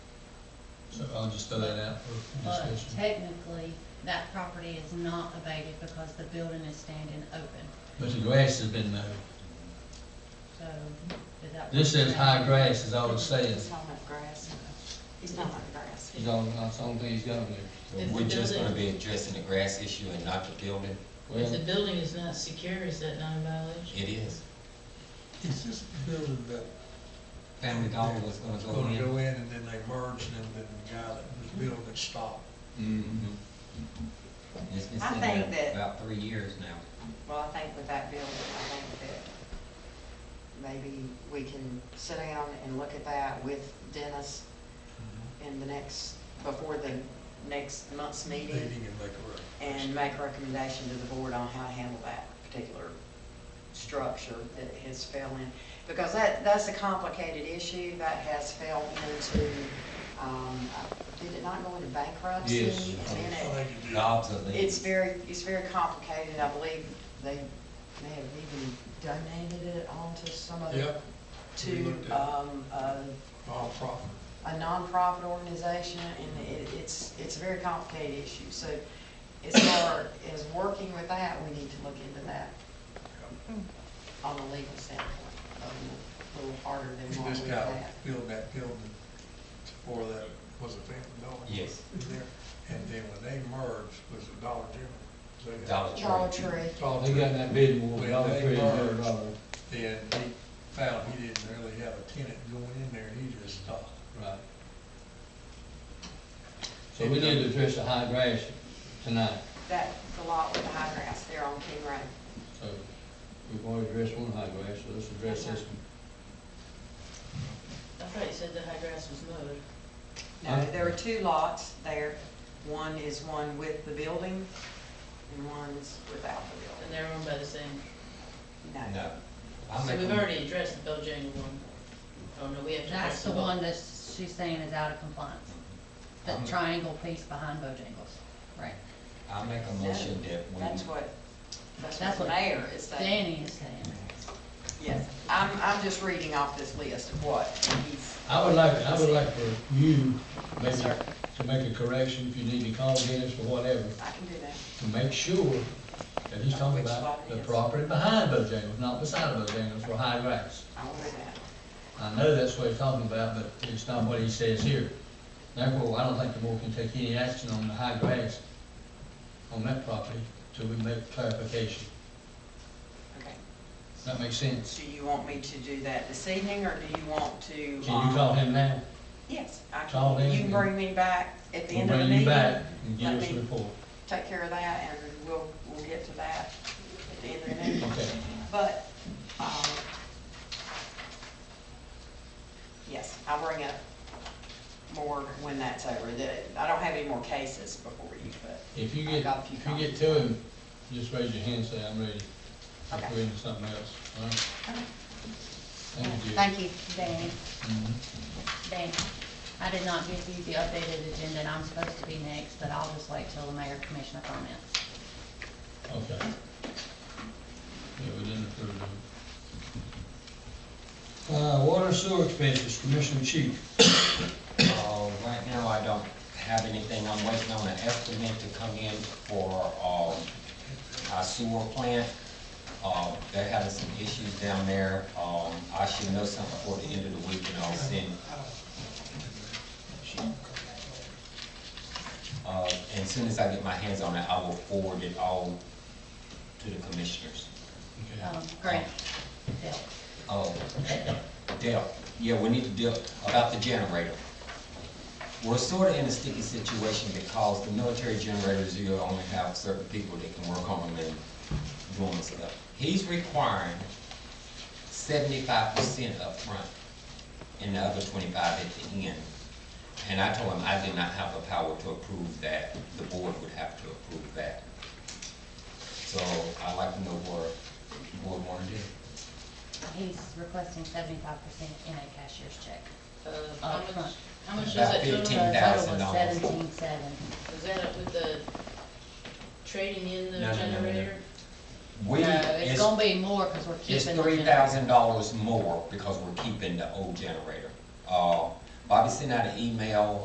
So I'll just throw that out for But discussion. technically, that property is not abated because the building is standing open, But the grass has been mowed. so is that? This says high grass is all it He's says. talking about grass. He's talking about grass. He's all, that's the only thing he's got on there. So If We're the just gonna be building- addressing the grass issue and not the building? If the Well, building is not secure, is that not a violation? It is. It's this building that Family Dollar was gonna go gonna in. go in and then they merged and then the guy that was building it stopped. mm-hmm. Mhm. Mm-hmm. It's been I sitting think there that- about three years now. Well, I think with that building, I think that maybe we can sit down and look at that with Dennis Mm-hmm. in the next, before the next month's meeting Meeting and make a recommendation. and make a recommendation to the board on how to handle that particular structure that has fell in. Because that, that's a complicated issue that has fell into, um, did it not go into bankruptcy? Yes. And then I it- think it did. Jobs are leaving. it's very, it's very complicated, I believe they may have even donated it onto some other, Yep, we to, looked at it. um, a, nonprofit. a nonprofit organization, and it, it's, it's a very complicated issue, so as far as working with that, we need to look into that on a legal standpoint, a little- little harder And than what This we guy have. built that building for that, was a family dollar. Yes. In there. And then when they merged, was a Dollar General. They- Dollar Dollar Tree. Tree, Dollar they Oh, got in General. that bid war, When Dollar they Tree, Dollar merged, Dollar. Then he found he didn't really have a tenant going in there, he just stopped. Right. So we need to address the high grass tonight. that, the lot with the high grass there on King Road. So we've already addressed one high grass, so let's address this one. I thought you said the high grass was mowed. No, there are two lots there. One is one with the building and one's without the And they're owned by the same, building. No. No. I so make we've a- already addressed the Bojangles one. Oh, no, we have to That's address the the one. one that she's saying is out of compliance, the I'm- triangle piece behind Bojangles, right? I make a motion that we. That's what, that's That's what what the mayor is saying. Danny is saying, Yes, I'm, I'm just reading off this list of what he's. I would like, I would like for you, maybe, Yes, sir. to make a correction, if you need to call Dennis or whatever, I can do that. to make sure that he's talking Which about lot the it is. property behind Bojangles, not beside Bojangles, for high grass. I will do that. I know that's what he's talking about, but it's not what he says here. Therefore, I don't think the board can take any action on the high grass on that property till we make clarification. Okay. Does that make sense? Do you want me to do that this evening or do you want to? um, Can you call him now? Yes, I Call can. him You can and- bring me back at the We'll end of the bring you meeting. back and give Let us a me- report. Take care of that and we'll, we'll get to that at the end of the meeting. Okay. But, um, yes, I'll bring up more when that's over. The- I don't have any more cases before you, but, If you I get, got a few if you get to him, just raise your hand, and say, I'm ready. Okay. If we're into something else, all right? Thank you. thank you. Danny, Mhm. Danny, I did not give you the updated agenda, and I'm supposed to be next, but I'll just wait till the mayor commissioner comments. Okay. Yeah, we didn't approve them. Uh, water sewer expenses, Commissioner Chief. Uh, right now, I don't have anything. I'm waiting on an estimate to come in for, um, our sewer plant. Uh, they're having some issues down there. Um, I should know something before the end of the week and I'll send. Uh, and as soon as I get my hands on it, I will forward it all to the commissioners. Okay. Um, Grant, Bill, Oh, Dale, yeah, we need to deal about the generator. We're sort of in a sticky situation because the military generators, you only have certain people that can work on them and doing stuff. He's requiring seventy-five percent upfront and the other twenty-five at the end. And I told him I did not have the power to approve that, the board would have to approve that. So I'd like to know where the board wanted to do. he's requesting seventy-five percent in a cashier's check. Uh, how Up much, front. how much is About that total? 15,000. Total was $1,000. seventeen-seven. Is that it with the trading in the No, no, no, no, no. generator? We- No, it's gonna be more, cause we're It's keeping. the three generator. thousand dollars more because we're keeping the old generator. Uh, Bobby sent out an email